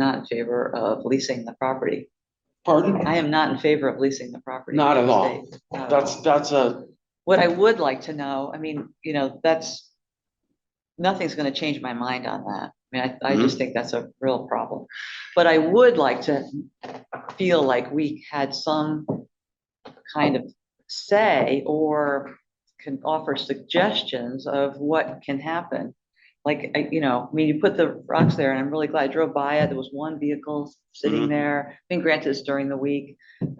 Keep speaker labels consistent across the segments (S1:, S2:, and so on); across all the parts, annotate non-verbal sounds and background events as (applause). S1: not in favor of leasing the property.
S2: Pardon?
S1: I am not in favor of leasing the property.
S2: Not at all.
S1: Not at all.
S2: That's, that's a,
S1: What I would like to know, I mean, you know, that's, nothing's gonna change my mind on that. I mean, I, I
S3: Mm-hmm.
S1: just think that's a real problem. But I would like to feel like we had some kind of say or can offer suggestions of what can happen. Like, I, you know, I mean, you put the rocks there and I'm really glad I drove by it. There was one vehicle sitting
S2: Mhm.
S3: Mm-hmm.
S1: there. I mean, granted, it's during the week.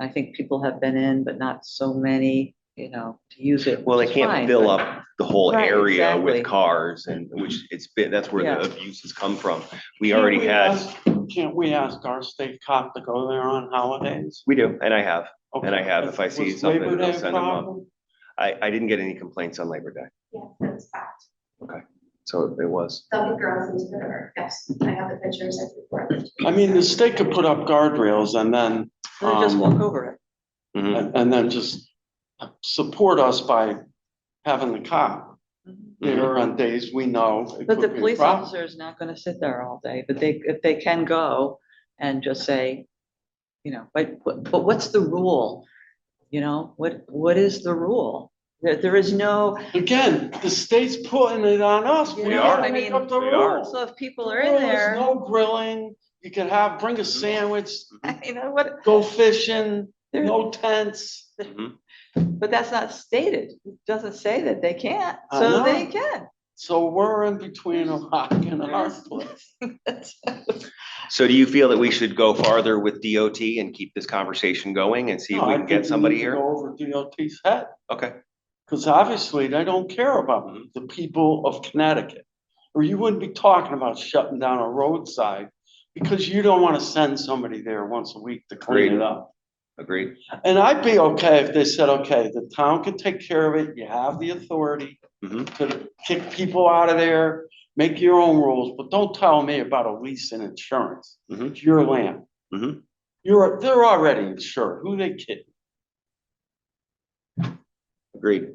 S1: I think people have been in, but not so many, you know, to use it.
S3: Well, they
S1: which is fine,
S3: can't fill
S1: but-
S3: up the whole
S1: Right,
S3: area
S1: exactly.
S3: with cars and which it's been, that's where the
S1: Yeah.
S3: abuse has come from. We
S2: Can't
S3: already
S2: we
S3: had,
S2: ask- Can't we ask our state cop to go there on holidays?
S3: we do, and I have. And I have,
S2: Okay,
S3: if I see
S2: was
S3: something,
S2: Labor
S3: I'll
S2: Day a
S3: send 'em up.
S2: problem?
S3: I, I didn't get any complaints on Labor Day,
S4: Yes, that's fact.
S3: so it was.
S4: Dumping girls into the river, yes, I have the pictures, I can forward them.
S2: I mean, the state could put up guardrails and then,
S1: They just
S2: Um,
S1: walk over it.
S3: Mhm.
S2: and and then just support us by having the cop
S1: Mm-hmm.
S3: Hmm.
S2: there on days we know. it
S1: But the
S2: could be a
S1: police
S2: problem.
S1: officer is not gonna sit there all day, but they, if they can go and just say, you know, but, but what's the rule? You know, what, what is the rule? There, there is no,
S2: Again, the state's putting it on us.
S1: you
S2: We
S1: know,
S3: are.
S2: gotta
S1: I
S2: make
S1: mean,
S2: up the
S3: we are.
S2: rules.
S1: so if people are in there, (laughs)
S2: No grilling, you could have, bring
S3: Hmm.
S2: a sandwich,
S1: you know, what,
S2: go fishing,
S1: there-
S2: no tents.
S3: Mhm.
S1: but that's not stated. It doesn't say that they can't,
S2: I
S1: so
S2: know.
S1: they can.
S2: So we're in between a rock and a hard place.
S3: So do you feel that we should go farther with DOT and keep this conversation going and see if
S2: No,
S3: we
S2: Oh, I
S3: can
S2: think
S3: get
S2: we
S3: somebody
S2: need to
S3: here?
S2: Go over DOT's head,
S3: Okay,
S2: because obviously they don't care about the people of Connecticut. Or you wouldn't be talking about shutting down a roadside because you don't want to send somebody there once a week to clean it
S3: Agreed.
S2: up.
S3: agreed.
S2: And I'd be okay if they said, okay, the town can take care of it, you have the authority
S3: Mhm.
S2: to kick people out of there, make your own rules, but don't tell me about a lease and insurance.
S3: Mhm.
S2: It's your land.
S3: Mhm.
S2: You're, they're already insured, who they kidding?
S3: Agreed.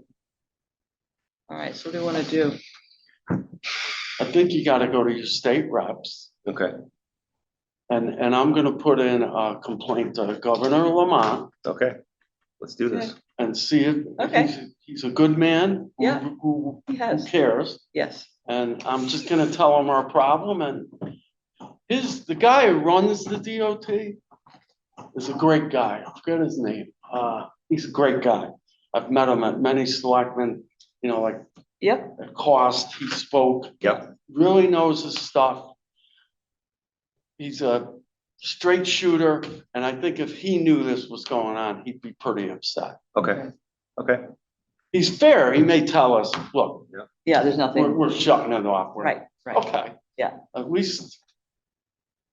S1: (laughs) All right, so what do you wanna do?
S2: I think you gotta go to your state reps,
S3: Okay,
S2: and, and I'm gonna put in a complaint to Governor Lamont
S3: okay. Let's do this.
S2: and see if.
S1: Okay.
S2: he's a- He's a good man. who-
S1: Yeah.
S2: Who,
S1: He
S2: who
S1: has,
S2: cares.
S1: yes.
S2: And I'm just gonna tell him our problem and his, the guy who runs the DOT is a great guy. I forget his name. Uh, he's a great guy. I've met him at many selectmen, you know, like
S1: Yep,
S2: at cost, he spoke.
S3: Yep.
S2: Really knows his stuff. He's a straight shooter, and I think if he knew this was going on, he'd be pretty upset.
S3: Okay, okay.
S2: He's fair. He may tell us, look,
S1: yeah, there's
S2: we're,
S1: nothing,
S2: we're shutting it off. We're-
S1: right, right.
S2: Okay.
S1: Yeah.
S2: At least,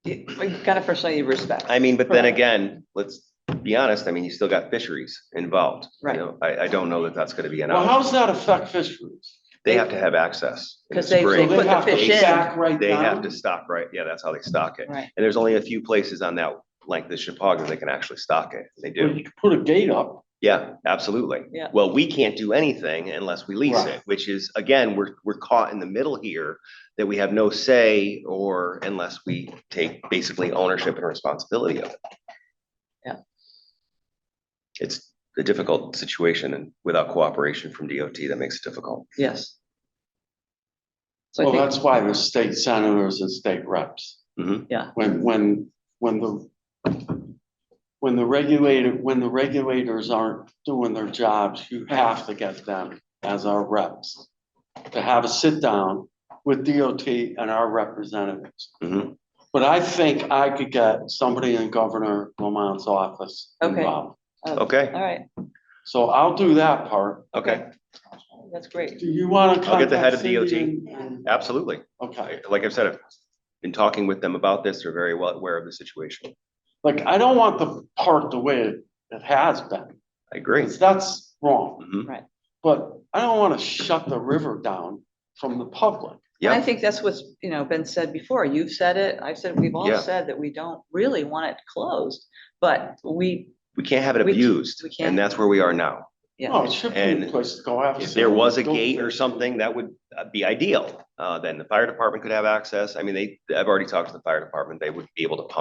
S1: You gotta personally respect.
S3: I mean, but then
S1: Correct.
S3: again, let's be honest, I mean, you still got fisheries involved. you
S1: Right.
S3: know? I, I don't know that that's gonna be
S2: well,
S3: enough.
S2: how does that affect fisheries?
S3: They have to have access. in the
S1: 'Cause they- they
S2: So
S3: spring.
S2: they
S1: put the
S2: have to
S1: fish in.
S2: back right
S3: They have
S2: down?
S3: to stock, right? Yeah, that's how they stock it.
S1: Right,
S3: And there's only a few places on that length of Chappaqua that can actually stock it. They
S2: Well,
S3: do.
S2: You could put a gate up.
S3: Yeah, absolutely.
S1: Yeah.
S3: Well, we can't do anything unless we lease
S2: Right.
S3: it, which is, again, we're, we're caught in the middle here that we have no say or unless we take basically ownership and responsibility of it.
S1: Yeah.
S3: It's a difficult situation and without cooperation from DOT, that makes it difficult.
S1: yes. So I
S2: Well,
S1: think-
S2: that's why the state senators and state reps.
S3: Mhm.
S1: Yeah.
S2: When, when, when the, when the regulator, when the regulators aren't doing their jobs, you have to get them as our reps. To have a sit down with DOT and our representatives.
S3: Mhm.
S2: But I think I could get somebody in Governor Lamont's office
S1: Okay.
S2: involved.
S3: Okay,
S1: uh, All right,
S2: So I'll do that part.
S3: okay,
S1: that's great.
S2: Do you want to
S3: I'll
S2: contact
S3: get the head of
S2: Cindy
S3: DOT.
S2: and- and-
S3: absolutely.
S2: Okay.
S3: Like I've said, I've been talking with them about this. They're very well aware of the situation.
S2: Like, I don't want the park the way it it has been,
S3: I agree.
S2: 'cause that's wrong.
S3: Mhm.
S2: But I don't want to shut the river down from the public.
S1: And I
S3: Yeah,
S1: think that's what's, you know, been said before. You've said it, I've said, it, we've all
S3: Yeah.
S1: said that we don't really want it closed, but we,
S3: we can't have it
S1: We-
S3: abused
S1: we can't.
S3: and that's where we are now.
S1: yeah.
S3: Oh,
S2: No, it should be a
S3: And
S2: place to go after.
S3: If there was a
S2: somebody.
S3: gate or something, that would uh, be ideal, Uh, then the fire department could have access. I mean, they, I've already talked to the fire department. They would be able to pump